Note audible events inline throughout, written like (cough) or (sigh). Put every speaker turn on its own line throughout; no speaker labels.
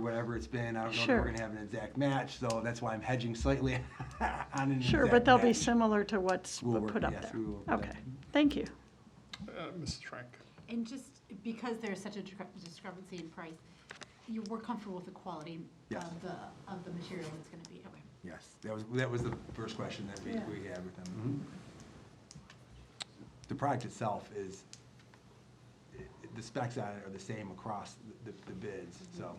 whatever it's been. I don't know if
Sure.
we're gonna have an exact match, so that's why I'm hedging slightly (laughs) on an exact
Sure, but they'll be
match.
similar to what's
We'll work-
put up
yes,
there.
we will work it out.
Okay, thank you.
Uh, Mrs. Frank.
And just because there's such a discre- discrepancy in price, you were comfortable with the quality
Yes.
of the, of the material that's going to be, okay.
Yes, that was, that was the first question that we,
Yeah.
we had with them. The product itself is, i- the specs on it are the same across the, the bids, so.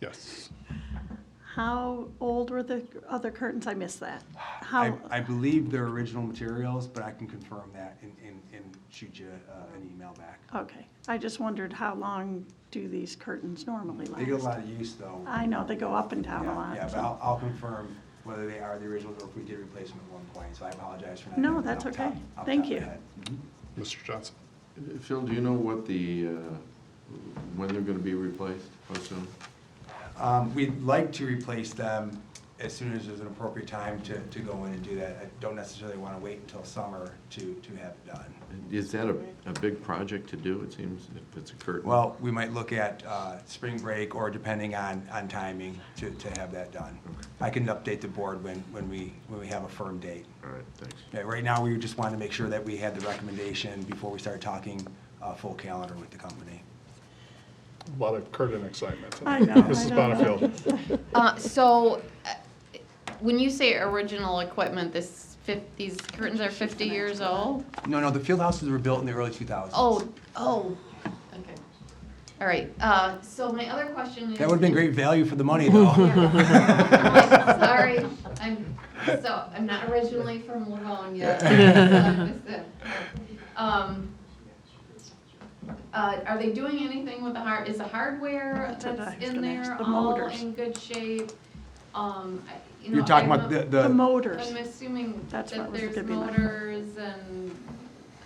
Yes.
How old were the other curtains? I missed
(sighs)
that.
I,
How,
I believe they're original materials, but I can confirm that and, and, and shoot you uh, an email back.
okay, I just wondered how long do these curtains normally last?
They get a lot of use though.
I know, they go up and down a
Yeah,
lot.
Yeah, but
so-
I'll, I'll confirm whether they are the originals or if we did replace them at one point, so I apologize for not.
No,
knowing
that's
off the top-
okay.
off the
Thank
top of
you.
my head.
Mr. Johnson.
Phil, do you know what the, uh, when they're going to be replaced, how soon?
Um, We'd like to replace them as soon as there's an appropriate time to, to go in and do that. I don't necessarily want to wait until summer to, to have it done.
Is that a, a big project to do, it seems, if it's a curtain?
Well, we might look at uh, spring break or depending on, on timing to, to have that done. I can update the board when, when we, when we have a firm date.
All right, thanks.
Okay, Right now, we just wanted to make sure that we had the recommendation before we start talking uh, full calendar with the company.
A lot of curtain excitement.
I know, I
Mrs.
know.
Bonnefield.
Uh, so, uh, when you say original equipment, this fif, these curtains are fifty years old?
No, no, the field houses were built in the early 2000s.
Oh, oh, okay. All right, uh, so my other question is.
That would have been great value for the money, though.
(laughs) Sorry, I'm, so, I'm not originally from Livonia. so I'm just, uh, (laughs) Um, uh, are they doing anything with the hard, is the hardware
That's what I
that's
was
in
gonna ask,
there
the
all
motors.
in good shape? Um, I- you know.
You're talking
I'm
about
a-
the,
The
the,
motors,
I'm assuming that
That's what was
there's
gonna be my-
motors and,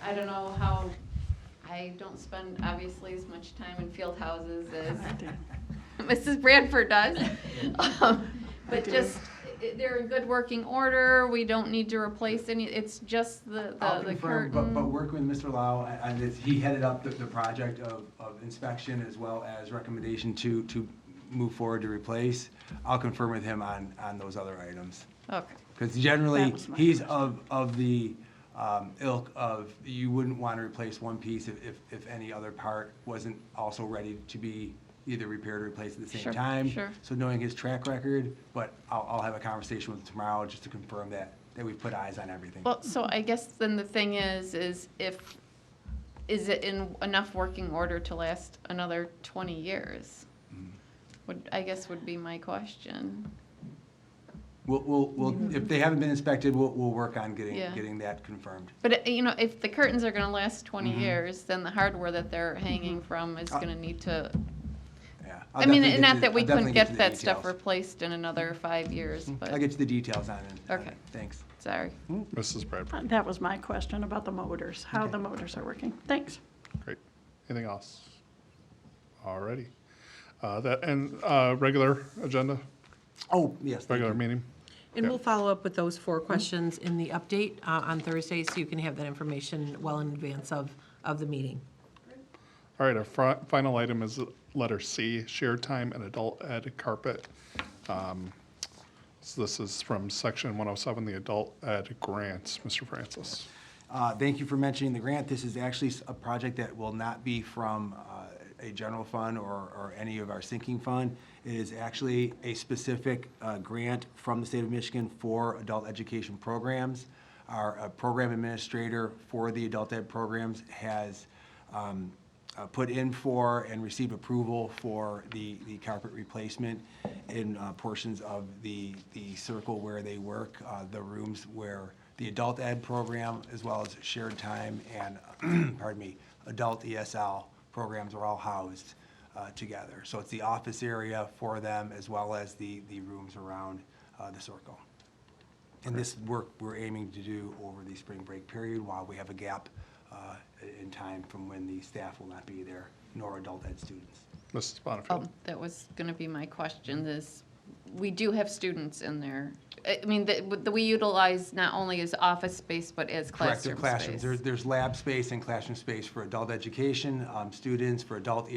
I don't know how, I don't spend obviously as much time in field houses
(laughs)
as
I do.
Mrs. Bradford
(laughs)
does. Um, But
do.
just, i- they're in good working order, we don't need to replace any, it's just the,
I'll
the- mm. the
confirm, but, but
curtain.
working with Mr. Lau, and it's, he headed up the, the project of, of inspection as well as recommendation to, to move forward to replace. I'll confirm with him on, on those other items.
Okay,
Because generally,
That was my
he's of, of the um, ilk of, you wouldn't want to replace one piece if, if, if any other part wasn't also ready to be either repaired or replaced at the same
Sure,
time.
sure.
So knowing his track record, but I'll, I'll have a conversation with him tomorrow just to confirm that, that we've put eyes on everything.
well, so I guess then the thing is, is if, is it in enough working order to last another twenty years?
Mm.
Would, I guess would be my question.
We'll, we'll, we'll, if they haven't been inspected, we'll, we'll work on getting,
Yeah.
getting that confirmed.
But, uh, you know, if the curtains are gonna last twenty
Mhm.
years, then the hardware that they're hanging from is
Uh,
gonna need to,
Yeah. I'll
I mean,
definitely
not
to-
that we
I'll definitely
couldn't
to
get
the
that stuff
details.
replaced in another five years,
I'll
but,
get Mm-hmm. you the details on it. on
Okay.
it. Thanks.
sorry.
Mrs. Bradford.
Uh, That was my question about the motors, how
Okay.
the motors are working. Thanks.
Great. Anything else? Alrighty. Uh, that, and, uh, regular agenda,
Oh, yes. thank you.
regular meeting.
And
Yeah.
we'll follow up with those four questions in the update uh, on Thursday, so you can have that information well in advance of, of the meeting.
All right, our fri- final item is letter C, shared time and adult ed carpet. Um, So this is from section 107, the adult ed grants. Mr. Francis.
Uh, Thank you for mentioning the grant. This is actually s- a project that will not be from uh, a general fund or, or any of our sinking fund. It is actually a specific uh, grant from the state of Michigan for adult education programs. Our uh, program administrator for the adult ed programs has um, uh, put in for and receive approval for the, the carpet replacement in uh, portions of the, the circle where they work, uh, the rooms where the adult ed program, as well as shared time and, (clears throat) pardon me, adult ESL programs are all housed uh, together. So it's the office area for them, as well as the, the rooms around uh, the circle. And this work we're aiming to do over the spring break period while we have a gap uh, in time from when the staff will not be there, nor adult ed students.
Mrs.
Um,
Bonnefield.
that was gonna be my question, is, we do have students in there. I I mean, the- what we utilize not only as office space, but as
Correct,
classroom
they're
space.
classrooms. There's, there's lab space and classroom space for adult education, um, students, for adult